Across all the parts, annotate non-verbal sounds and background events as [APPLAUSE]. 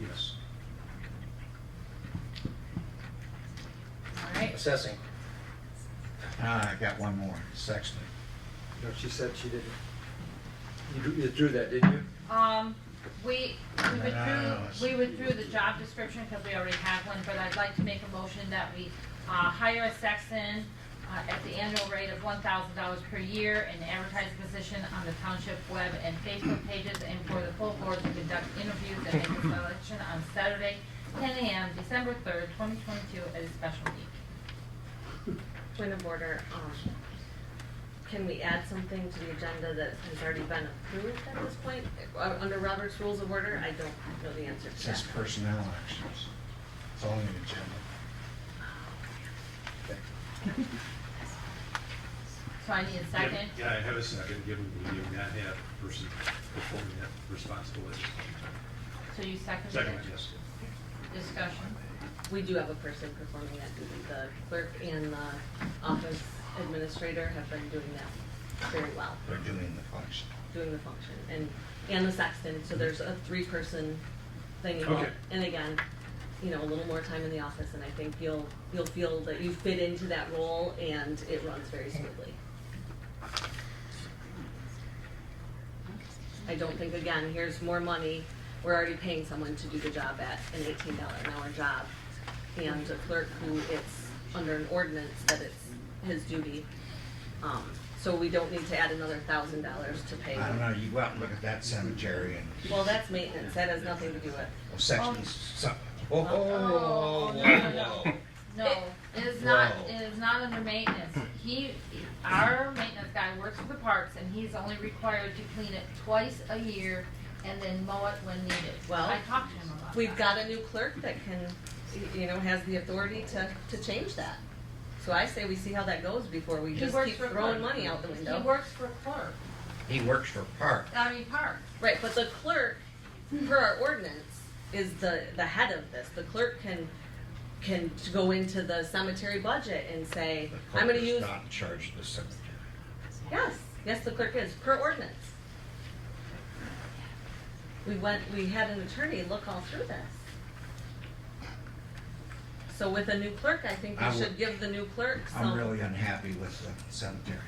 Yes. All right, Assessing. Ah, I got one more, Sexton. No, she said she didn't. You drew- You drew that, didn't you? um, we, we No, no, no, it's- withdrew, we withdrew the job description because we already have one, but I'd like to make a motion that we, uh, hire a sexton, uh, at the annual rate of one thousand dollars per year and advertise the position on the township web and Facebook pages and for the full board to conduct interviews and make a selection on Saturday, ten AM, December third, twenty twenty-two, at a special meeting. Point of order, um, can we add something to the agenda that has already been approved at this point? Uh, Under Robert's Rules of Order, I don't know the answer It to says that. personnel actions. It's only an agenda. Okay. So I need a second. Yeah, I have a second, given we do not have a person performing that responsibility. So you seconded it? Second, yes. Discussion. We do have a person performing that duty. The clerk and the office administrator have been doing that very well, They're doing the function. doing the function. And, and the sexton, so there's a three-person thing involved. Okay. And again, you know, a little more time in the office, and I think you'll, you'll feel that you fit into that role, and it runs very smoothly. I don't think, again, here's more money, we're already paying someone to do the job at an eighteen dollar an hour job. And a clerk who it's under an ordinance that it's his duty. Um, so we don't need to add another thousand dollars to pay. I don't know, you go out and look at that cemetery and, Well, that's maintenance, that has nothing to do with, well, Sexton's, some- oh, oh, Oh, oh, no, oh, no, oh. No, it is not, Whoa. it is not under maintenance. He, our maintenance guy works for the parks and he's only required to clean it twice a year and then mow it when needed. Well, I talked to him about that. we've got a new clerk that can, you know, has the authority to, to change that. So I say we see how that goes before we He just works keep for throwing clerk. money out the window. He works for clerk, He works for Park. I mean, parks. Right, but the clerk, per our ordinance, is the, the head of this. The clerk can, can go into the cemetery budget and say, The I'm gonna clerk is use, Not in charge of the cemetery. yes, yes, the clerk is, per ordinance. We went, we had an attorney look all through this. So with a new clerk, I think I we would- should give the new clerk some. I'm really unhappy with the cemetery,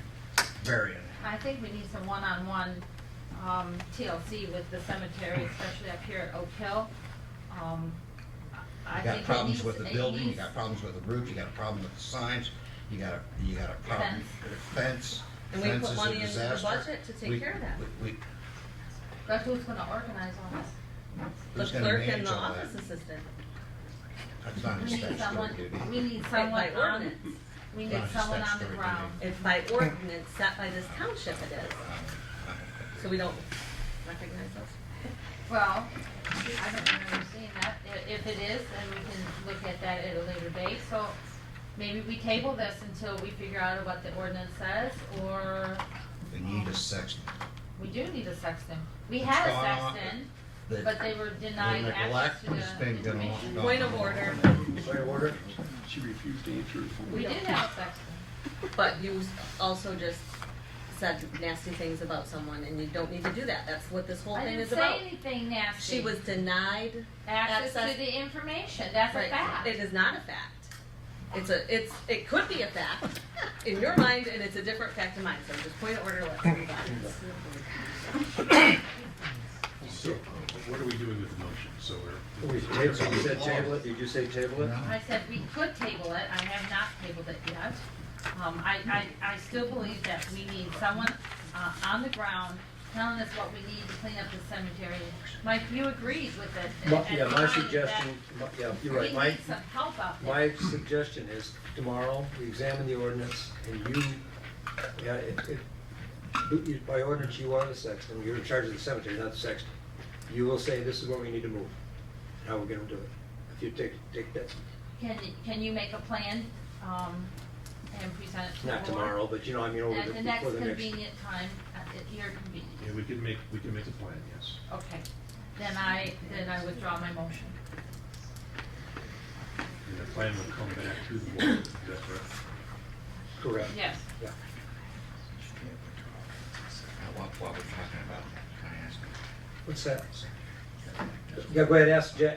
very unhappy. I think we need some one-on-one, um, TLC with the cemetery, especially up here at Oak Hill. Um, I You I got think it problems needs- with the it building, you needs- got problems with the roof, you got a problem with the signs, you got a, you got a problem with the fence. And we Fence put is a money into the disaster. budget to We- take care of that. we- we- That's who's gonna organize all this. The who's gonna clerk and manage the all that? office assistant. That's [LAUGHS] not a We need someone, statutory duty. we need by someone on, ordinance. we Not need a someone on the statutory ground. It's by ordinance set by this township it is, so we don't recognize those. Well, I don't remember seeing that. I- If it is, then we can look at that at a later date, so maybe we table this until we figure out what the ordinance says, or They need a section. we do need a sexton. We It's had a gone on- sexton, The- but they were denied the access Uh, neglect to has the been going information. on. Point of order, Point of order? She refused to answer his phone. We did have a sexton. but you also just said nasty things about someone, and you don't need to do that, that's what this whole I thing didn't is say about. anything nasty. She was denied. Access access- to the information, that's a Right. fact. It is not a fact. It's a, it's, it could be [LAUGHS] a fact in your mind, and it's a different fact in mine, so just point of order, let's move on. So what are we doing with the motion? So we're. We tabled, you said table it, did you say table it? No. I said we could table it, I have not tabled it yet. Um, I, I, I still believe that we need someone, uh, on the ground telling us what we need to clean up the cemetery. Mike, you agreed with it. My- Yeah, and my I- suggestion, my- yeah, that you're right, We my, need some help out there. my suggestion is tomorrow, we examine the ordinance and you, yeah, it, it, you- you- by ordinance, you are the sexton, you're in charge of the cemetery, not the sexton. You will say, this is where we need to move, how we're gonna do it. If you take, take that, Can, can you make a plan, um, and present it to the not board? tomorrow, but you know, I mean, over At the, the next before the next. convenient time, at your convenience, Yeah, we can make, we can make a plan, yes. okay. Then I, then I withdraw my motion. And the plan will come back to the board, is that correct? Correct. Yes. Now, While, while we're talking about that, can I ask? What's that? a second? Yeah, go ahead, ask Jack,